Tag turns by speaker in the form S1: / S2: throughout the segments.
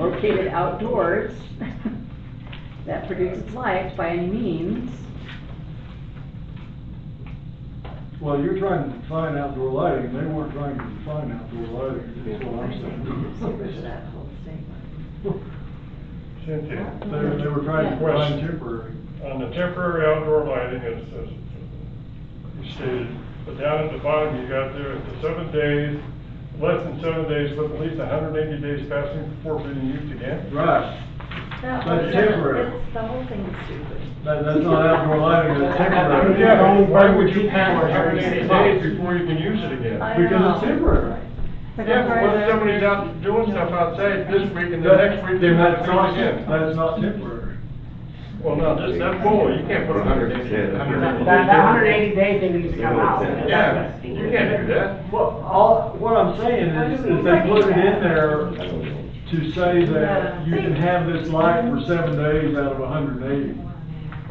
S1: located outdoors that produces light by any means.
S2: Well, you're trying to define outdoor lighting, they weren't trying to define outdoor lighting, is what I'm saying.
S3: Cynthia,
S2: They, they were trying to define temporary,
S3: on the temporary outdoor lighting, it says, you stated, but down at the bottom, you got there, the seven days, less than seven days, but at least hundred and eighty days passing before being used again.
S2: right,
S4: That
S2: But
S4: was-
S2: temporary.
S4: it's- The whole thing is stupid.
S2: that, that's not outdoor lighting, that's temporary.
S3: Yeah, but why would you pass hundred and eighty days before you can use it again?
S4: I
S2: Because it's
S4: know.
S2: temporary.
S3: Yeah, but once somebody's out doing stuff outside this week and the next week, they
S2: Then
S3: might
S2: that's
S3: do it
S2: not,
S3: again.
S2: that's not temporary.
S3: Well, no, that's not full, you can't put a hundred and eighty.
S5: That, that hundred eighty day thing needs to come out.
S3: Yeah, you can't do that.
S2: Well, all, what I'm saying is, is they put it in there to say that you can have this light for seven days out of hundred and eighty.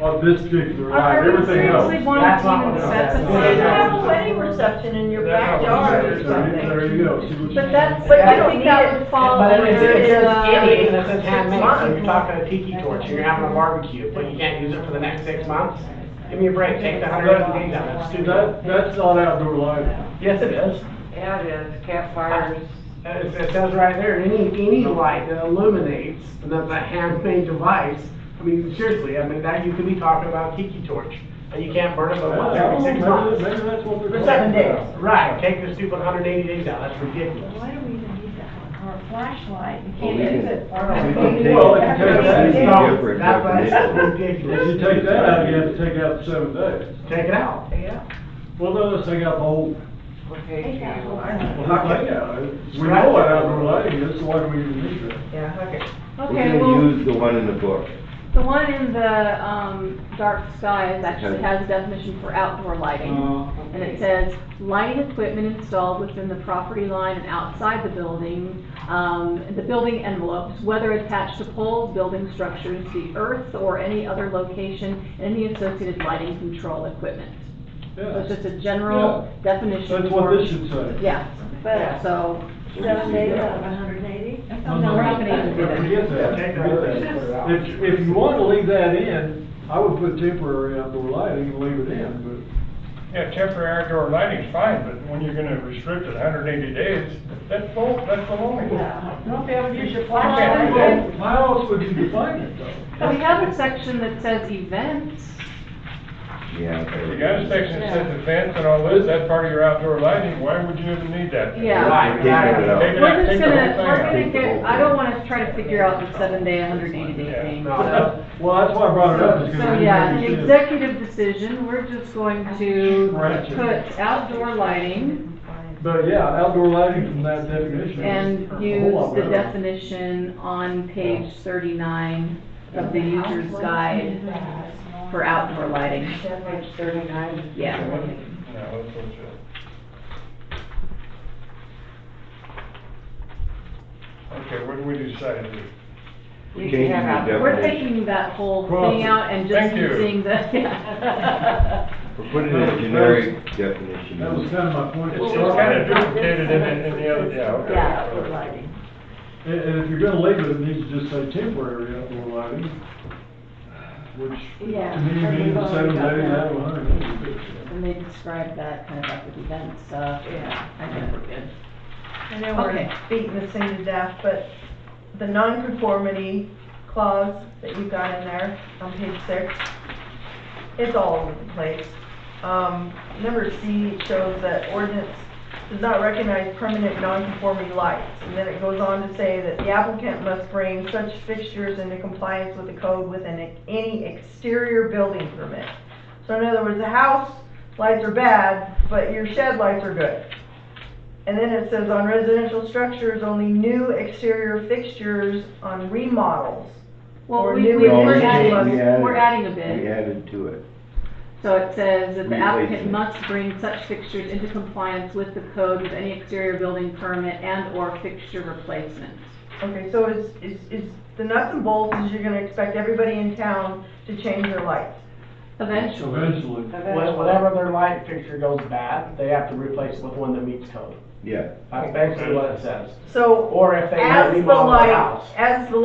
S2: On this particular light, everything else.
S5: That's not what it
S4: That's
S5: says.
S4: a- Well, you have a wedding reception in your
S3: That's not what
S4: backyard
S3: it
S4: or
S3: says.
S4: something.
S2: There you go, see what you.
S4: But that's, but
S5: I
S4: I
S5: don't
S4: think that would fall
S5: But
S4: under
S5: if it's, if
S4: the.
S5: it's anything that says ten
S4: six
S5: minutes, and you're
S4: months.
S5: talking a tiki torch, and you're having a barbecue, but you can't use it for the next six months, give me a break, take the hundred eighty days out, that's stupid.
S2: That, that's not outdoor lighting.
S5: Yes, it is.
S6: Yeah, it is, campfires.
S5: It, it says right there, any, any light that illuminates, and that's a handmade device, I mean, seriously, I mean, that, you could be talking about tiki torch, and you can't burn it but once every six
S2: Maybe-
S5: months.
S2: Maybe that's what they're.
S5: For seven
S2: talking
S5: days,
S2: about.
S5: right, take the stupid hundred eighty days out, that's ridiculous.
S4: Why do we even need that one, or a flashlight, you
S7: Well,
S4: can't
S7: we
S4: use
S7: can-
S4: it.
S7: we can take
S2: Well,
S7: it-
S2: if you take that-
S7: that's no,
S5: No, that- that's ridiculous.
S2: If you take that out, you have to take out the seven days.
S5: Take it out.
S6: Yeah.
S2: Well, no, let's take out the whole,
S6: Okay,
S2: well, not take out, we know what outdoor lighting is, so why do we even need that?
S6: Yeah, okay.
S7: We
S1: Okay,
S7: can
S1: well,
S7: use the one in the book.
S1: the one in the, um, dark skies actually
S7: Okay.
S1: has a definition for outdoor lighting.
S2: Uh,
S1: And it says, lighting equipment installed within the property line and outside the building, um, the building envelopes, whether attached to poles, building structures, the earth, or any other location, and the associated lighting control equipment. So
S2: yeah,
S1: it's just a general definition.
S2: that's what
S1: for-
S2: this should say.
S1: Yeah,
S4: But
S1: so,
S7: So
S4: seven
S7: we can
S4: days
S7: use that
S4: out of
S7: one.
S4: hundred and eighty?
S1: no, we're not gonna even do that.
S2: Forget that, forget
S5: Take that out and put it
S2: that.
S5: out.
S2: If, if you want to leave that in, I would put temporary outdoor lighting and leave it in,
S3: Yeah, temporary outdoor lighting's fine, but when you're gonna restrict it hundred and eighty days, that's full, that's baloney.
S6: Don't be able to use your
S3: flashlight.
S6: flashlight.
S2: but how else would you define it though?
S1: we have a section that says events.
S7: Yeah.
S3: If you got a section that says events and all this, that's part of your outdoor lighting, why would you even need that?
S1: Yeah.
S7: Right,
S5: Right,
S7: right.
S3: Take it
S1: We're
S3: out,
S1: just
S3: take the
S1: gonna, we're
S3: whole
S1: gonna
S3: thing out.
S1: get, I don't wanna try to figure out the seven day, hundred and eighty day
S3: Yeah.
S1: thing.
S5: No.
S2: Well, that's why I brought it up, is because.
S1: So, yeah, the executive decision, we're just going to
S2: Right.
S1: put outdoor lighting
S2: But yeah, outdoor lighting from that definition.
S1: and
S2: is a whole
S1: use
S2: lot
S1: the
S2: better.
S1: definition on page thirty-nine of the user's guide for outdoor lighting,
S6: Page thirty-nine.
S1: yeah.
S3: No, that's bullshit. Okay, what do we decide here?
S7: We're changing the
S1: We're
S7: definition.
S1: taking that whole
S2: Cross
S1: thing
S2: it.
S1: out and just
S3: Thank you.
S1: using the, yeah.
S7: We're putting in a generic definition.
S2: That was kind of my point.
S3: It's kinda duplicated in, in the other, yeah, okay.
S4: Yeah, outdoor lighting.
S2: And, and if you're gonna leave it, it needs to just say temporary outdoor lighting, which to me
S1: Yeah,
S2: means
S1: we've already
S2: seven
S1: got
S2: days
S1: that.
S2: out of a hundred and eighty.
S1: And they describe that kind of like with events, uh,
S6: Yeah.
S1: I think we're good.
S4: I know we're
S1: Okay.
S4: beating this thing to death, but the non-conformity clause that you've got in there on page six, it's all over the place. Um, number C shows that ordinance does not recognize permanent non-conformity lights. And then it goes on to say that the applicant must bring such fixtures into compliance with the code within a- any exterior building permit. So in other words, the house lights are bad, but your shed lights are good. And then it says on residential structures, only new exterior fixtures on remodels.
S1: Well,
S4: Or
S1: we,
S4: new
S1: we-
S4: No,
S1: we're
S4: we
S1: adding,
S7: added-
S1: we're adding a
S7: We
S1: bit.
S7: added to it.
S1: So it says that the
S7: We
S1: applicant
S7: raised it.
S1: must bring such fixtures into compliance with the code with any exterior building permit and/or fixture replacement.
S4: Okay, so it's, it's, it's, the nuts and bolts is you're gonna expect everybody in town to change their lights.
S1: Eventually,
S2: eventually.
S5: Wha- Whatever their light fixture goes bad, they have to replace it with one that meets code.
S7: yeah.
S5: That's basically what it says.
S4: So
S5: Or if they
S4: as the
S5: remodel the house.
S4: light, as the